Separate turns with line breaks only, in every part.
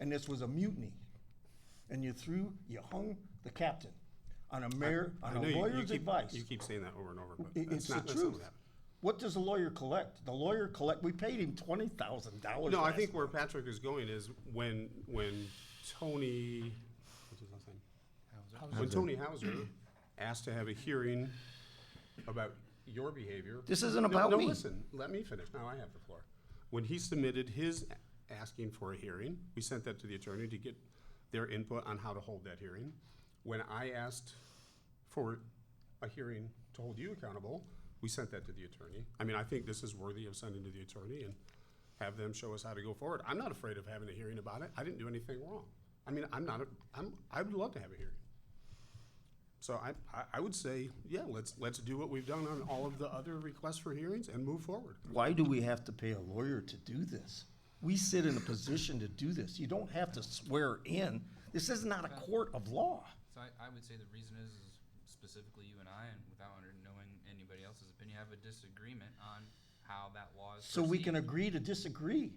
and this was a mutiny. And you threw, you hung the captain on a mayor,
I
on
know
a
you- you
lawyer's
keep-
advice.
You keep saying that over and over, but
It-
that's
It's the
not, that's not
truth.
what happened.
What does the lawyer collect? The lawyer collect, we paid him twenty thousand dollars.
No, I think where Patrick is going is when, when Tony, what's his last name? When Tony Hauser asked to have a hearing about your behavior.
This isn't
No,
about
no,
me.
listen, let me finish. Now I have the floor. When he submitted his a- asking for a hearing, we sent that to the attorney to get their input on how to hold that hearing. When I asked for a hearing to hold you accountable, we sent that to the attorney. I mean, I think this is worthy of sending to the attorney and have them show us how to go forward. I'm not afraid of having a hearing about it. I didn't do anything wrong. I mean, I'm not, a- I'm, I would love to have a hearing. So I, I, I would say, yeah, let's, let's do what we've done on all of the other requests for hearings and move forward.
Why do we have to pay a lawyer to do this? We sit in a position to do this. You don't have to swear in. This is not a court of law.
So I, I would say the reason is, is specifically you and I, and without under- knowing anybody else's opinion, have a disagreement on how that law is.
So we can
perceived.
agree to disagree.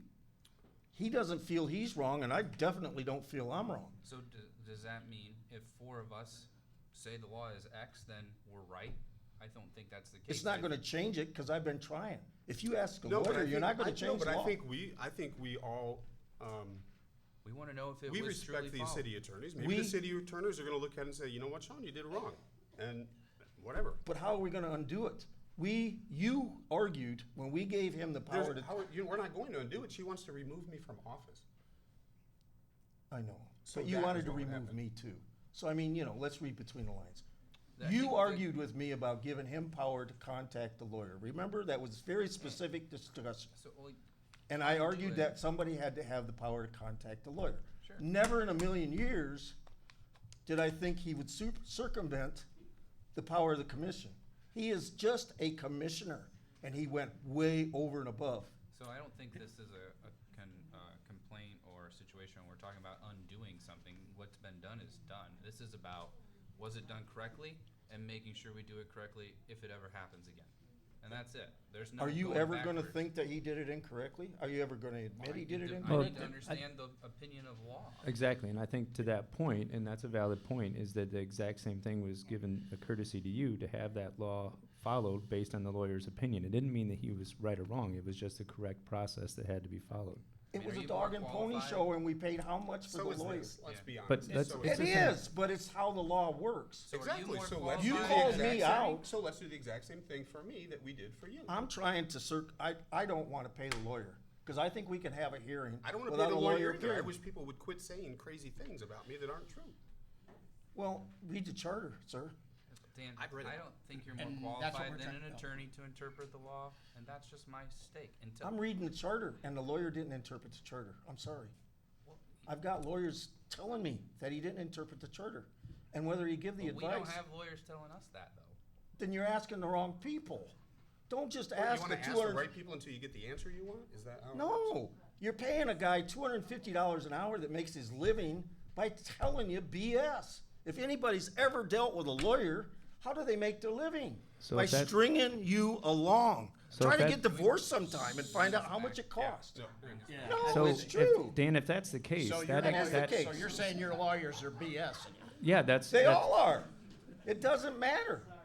He doesn't feel he's wrong, and I definitely don't feel I'm wrong.
So d- does that mean if four of us say the law is X, then we're right? I don't think that's the case.
It's not
I-
gonna change it, cause I've been trying. If you ask a
No, but I
lawyer, you're
think-
not gonna
I- no,
change the
But I
law.
think we, I think we all, um,
We want to know if it
we
was truly
respect the
followed.
city attorneys. Maybe the
We-
city attorneys are gonna look at it and say, you know what, Sean, you did wrong, and whatever.
But how are we gonna undo it? We, you argued when we gave him the
There's-
power to,
how are- you- we're not going to undo it. She wants to remove me from office.
I know,
So
but you
that
wanted
is
to
what would
remove
happen.
me too. So I mean, you know, let's read between the lines.
I think
You
the-
argued with me about giving him power to contact the lawyer. Remember, that was very specific discussion.
So like,
And I argued
it.
that somebody had to have the power to contact the lawyer.
Sure.
Never in a million years did I think he would sup- circumvent the power of the commission. He is just a commissioner, and he went way over and above.
so I don't think this is a, a con, uh, complaint or a situation where we're talking about undoing something. What's been done is done. This is about was it done correctly and making sure we do it correctly if it ever happens again. And that's it. There's no.
Are you
going
ever gonna
backwards.
think that he did it incorrectly? Are you ever gonna admit
I
he
need
did it
to-
incorrectly?
I need to
Well, I-
understand the opinion of law.
Exactly, and I think to that point, and that's a valid point, is that the exact same thing was given a courtesy to you to have that law followed based on the lawyer's opinion. It didn't mean that he was right or wrong, it was just the correct process that had to be followed.
It
mean,
was
are
a
you more
dog and pony
qualified?
show, and we paid how much for
So
the
is
lawyer?
this. Let's
Yeah.
be honest.
But that's-
So
it's
It
is
the
this.
same.
is, but it's how the law works.
So are you
Exactly,
more
so let's.
You
do the
called
exact
me
same-
out.
So let's do the exact same thing for me that we did for you.
I'm trying to cir, I, I don't wanna pay the lawyer, cause I think we can have a hearing
I don't want to be
without a
the lawyer
lawyer
either. I
appearing.
wish people would quit saying crazy things about me that aren't true.
Well, read the charter, sir.
Dan, I
I've read it.
don't think you're more
And that's what
qualified
we're
than
trying-
an
no.
attorney to interpret the law, and that's just my stake until.
I'm reading the charter, and the lawyer didn't interpret the charter. I'm sorry. I've got lawyers telling me that he didn't interpret the charter, and whether he give the
But We don't
advice,
have lawyers telling us that, though.
then you're asking the wrong people. Don't just
You
ask
want
the
to ask
two
the
hundred.
right people until you get the answer you want? Is that how? it works?
No, you're paying a guy two hundred and fifty dollars an hour that makes his living by telling you BS. If anybody's ever dealt with a lawyer, how do they make their living?
So
by
if that-
stringing you along.
So
Try
if
to
that-
get divorced sometime and find out how much it costs.
So,
No,
So,
it's
if-
true.
Dan, if that's the case,
So you're,
that,
that's the
that,
case.
so you're saying your lawyers are BS?
yeah, that's,
They
that's-
all are. It doesn't matter.
Okay,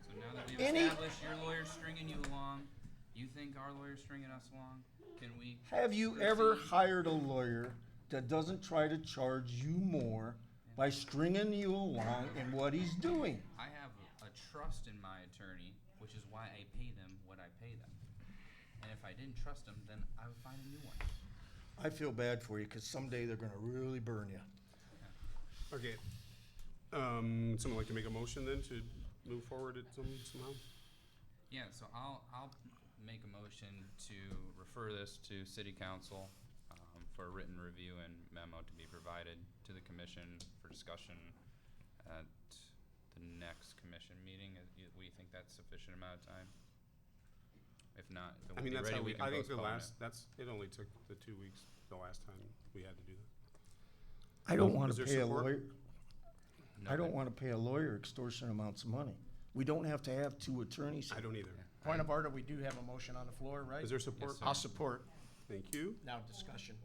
so now that we've
Any-
established your lawyer's stringing you along, you think our lawyer's stringing us along, can we?
Have you ever
proceed?
hired a lawyer that doesn't try to charge you more by stringing you along in what he's doing?
I have a trust in my attorney, which is why I pay them what I pay them. And if I didn't trust them, then I would find a new one.
I feel bad for you because someday they're going to really burn you.
Okay. Um, someone like to make a motion then to move forward at some, somehow?
Yeah, so I'll, I'll make a motion to refer this to city council, um, for a written review and memo to be provided to the commission for discussion at the next commission meeting. Uh, you- We think that's sufficient amount of time? If not, then
I
we'll
mean,
be
that's
ready,
how
we
we,
can
I think the
postpone
last,
it.
that's, it only took the two weeks, the last time we had to do that.
I don't
Is
want to
there
pay a
support?
lawyer. I don't
Nothing.
want to pay a lawyer extortion amounts of money. We don't have to have two attorneys.
I
here.
don't either.
Point of order, we do have a motion on the floor, right?
Is there support?
sir.
I'll support.
Thank you.
Now discussion.